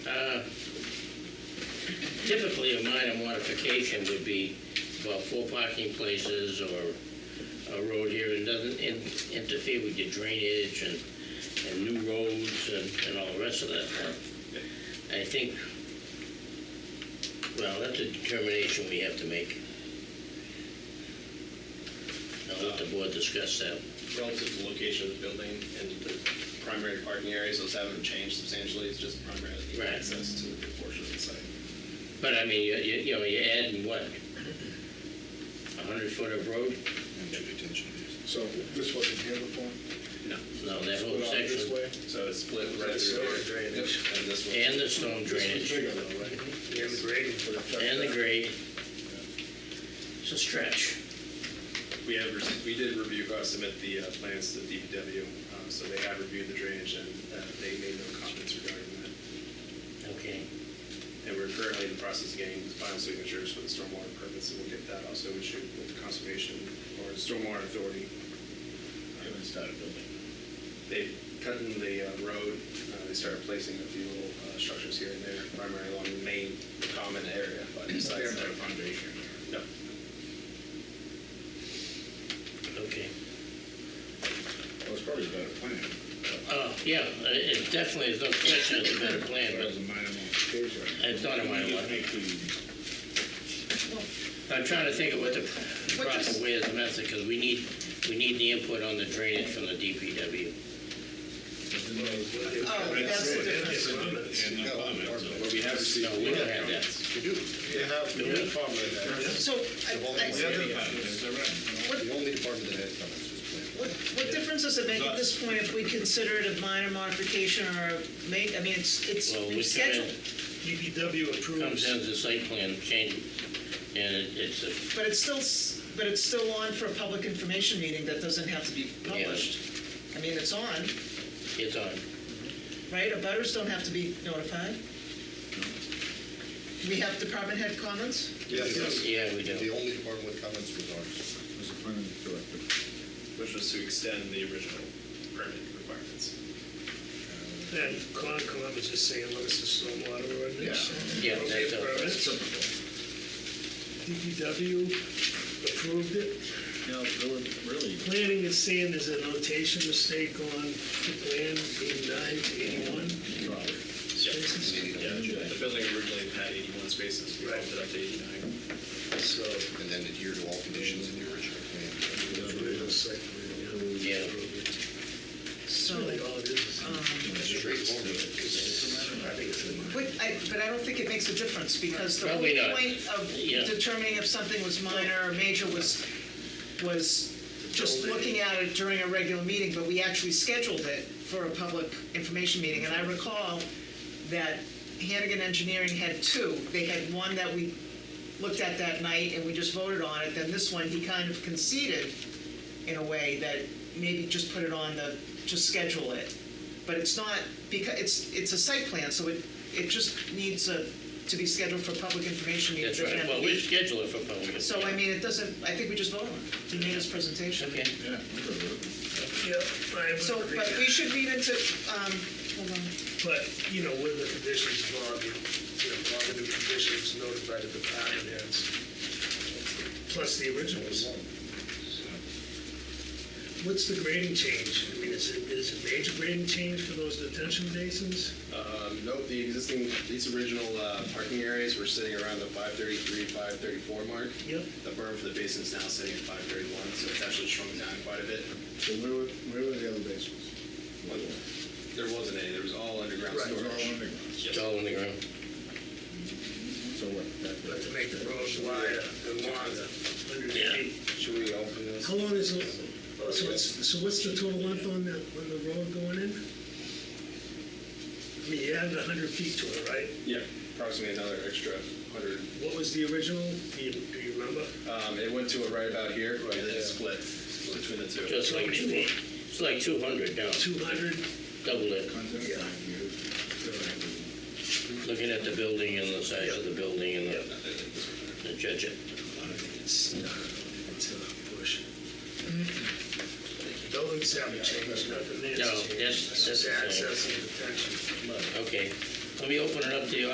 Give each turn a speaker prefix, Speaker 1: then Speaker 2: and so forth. Speaker 1: Uh, typically a minor modification would be about four parking places or a road here and doesn't in- interfere with your drainage and, and new roads and, and all the rest of that stuff. I think, well, that's a determination we have to make. I'll let the board discuss that.
Speaker 2: Relative to the location of the building and the primary parking areas, those haven't changed substantially, it's just primarily the
Speaker 1: Right.
Speaker 2: access to the portion of the site.
Speaker 1: But I mean, you, you you know, you're adding what? A hundred foot of road?
Speaker 3: So this wasn't here before?
Speaker 1: No, that whole
Speaker 3: Went out this
Speaker 1: section.
Speaker 3: way?
Speaker 2: So it's split right
Speaker 3: That's
Speaker 2: through
Speaker 3: right.
Speaker 2: here. And this one.
Speaker 1: And the storm
Speaker 3: This
Speaker 1: drainage.
Speaker 3: was bigger though, right?
Speaker 1: And the grade. It's a stretch.
Speaker 2: We have, rece- we did review, uh, submit the uh, plans to DPW, um, so they have reviewed the drainage and uh, they made no comments regarding that.
Speaker 1: Okay.
Speaker 2: And we're currently in the process of getting the final signatures for the stormwater permits, and we'll get that also issued with the conservation or stormwater authority.
Speaker 4: Haven't started building.
Speaker 2: They've cut in the uh, road, uh, they started placing a few little uh, structures here and there, primarily along the main common area, but besides that.
Speaker 4: foundation.
Speaker 2: No,
Speaker 1: Okay.
Speaker 4: Well, it's probably a better plan.
Speaker 1: Uh, yeah, it it definitely is no question it's a better plan,
Speaker 4: But it's a
Speaker 1: but
Speaker 4: minor modification.
Speaker 1: it's not a minor
Speaker 4: You
Speaker 1: one.
Speaker 4: make the-
Speaker 1: I'm trying to think of what the proper way is the method, because we need, we need the input on the drainage from the DPW.
Speaker 5: Oh, that's the difference.
Speaker 4: And the comments.
Speaker 2: but we have
Speaker 1: No,
Speaker 2: received.
Speaker 1: we don't have that.
Speaker 3: You have no problem with that.
Speaker 5: So, I-
Speaker 4: The
Speaker 5: I-
Speaker 4: other part, is that right?
Speaker 5: what,
Speaker 3: The only department that has comments is planning.
Speaker 5: what what difference does it make at this point if we consider it a minor modification or a ma, I mean, it's, it's
Speaker 1: Well, we
Speaker 5: scheduled,
Speaker 6: DPW
Speaker 1: Comes
Speaker 6: approves,
Speaker 1: down to the site plan change, and it- it's, a-
Speaker 5: but it's still, s- but it's still on for a public information meeting that doesn't have to be published. I mean, it's on,
Speaker 1: it's on.
Speaker 5: right? Abutters don't have to be notified. We have department head comments?
Speaker 3: Yes,
Speaker 1: Yeah, we
Speaker 3: the
Speaker 1: do.
Speaker 3: only department with comments was ours.
Speaker 4: Was the planning director.
Speaker 2: Which was to extend the original permit requirements.
Speaker 6: and Concom is just saying, look, it's a stormwater ordinance.
Speaker 1: Yeah,
Speaker 6: Okay,
Speaker 1: that's a-
Speaker 6: permit. DPW approved it.
Speaker 4: You know, there were really,
Speaker 6: Planning is saying there's a notation mistake on the plan, eighty-nine to eighty-one
Speaker 4: probably.
Speaker 6: spaces.
Speaker 2: Yeah, the building originally had 81 spaces, we bumped it up to 89.
Speaker 6: So,
Speaker 3: And then adhere to all conditions in the original plan.
Speaker 1: Yeah.
Speaker 6: that's
Speaker 5: So,
Speaker 6: really all it is.
Speaker 5: um,
Speaker 3: Straightforward.
Speaker 6: I think it's in
Speaker 5: but I, but I don't think it makes a difference because the whole
Speaker 1: Probably not.
Speaker 5: point of
Speaker 1: Yeah.
Speaker 5: determining if something was minor or major was, was just
Speaker 6: Building.
Speaker 5: looking at it during a regular meeting, but we actually scheduled it for a public information meeting. And I recall that Hannigan Engineering had two. They had one that we looked at that night and we just voted on it. Then this one, he kind of conceded in a way that maybe just put it on the, just schedule it. But it's not, because, it's, it's a site plan, so it, it just needs a, to be scheduled for public information. meeting.
Speaker 1: That's
Speaker 5: It doesn't
Speaker 1: right.
Speaker 5: have to
Speaker 1: Well,
Speaker 5: be-
Speaker 1: we schedule it for public.
Speaker 5: So, I mean, it doesn't, I think we just voted on it. He made his presentation.
Speaker 1: Okay.
Speaker 4: Yeah, I'm good with
Speaker 6: Yeah, I
Speaker 5: So,
Speaker 6: would agree.
Speaker 5: but we should read into, um, hold on.
Speaker 6: But, you know, with the conditions, Bob, you you know, Bob, the new conditions notified the department heads, plus the originals. What's the grading change? I mean, is it, is it major grading change for those detention basins?
Speaker 2: Um, Nope, the existing, these original uh, parking areas were sitting around the 533, 534 mark.
Speaker 6: Yep.
Speaker 2: The berm for the basin is now sitting at 531, so it's actually shrunk down quite a bit.
Speaker 4: it. So where were, where were the other basements?
Speaker 2: There wasn't any, there was all underground
Speaker 4: It was all
Speaker 2: storage.
Speaker 4: underground.
Speaker 1: It's all in the ground.
Speaker 4: So what? back there?
Speaker 6: But to make the roads wider and longer, hundred
Speaker 1: Yeah.
Speaker 6: feet.
Speaker 2: Should we open this?
Speaker 6: How long is, it- oh, so what's, so what's the total length on the, on the road going in? I mean, you added hundred feet to it, right?
Speaker 2: Yeah, approximately another extra 100.
Speaker 6: What was the original? Do you, do you remember?
Speaker 2: Um, It went to it right about here, and then it split between the two.
Speaker 1: Just like two, it's like two hundred now,
Speaker 6: Two hundred?
Speaker 1: double it,
Speaker 4: Content
Speaker 6: Yeah.
Speaker 4: five years. So I would-
Speaker 1: looking at the building and the size of the building and the, the judge uh, it.
Speaker 6: It's not, it's a push. Buildings haven't changed, nothing there.
Speaker 1: No, that's- that's the
Speaker 6: Just access and detention.
Speaker 1: Okay, let me open it up to you.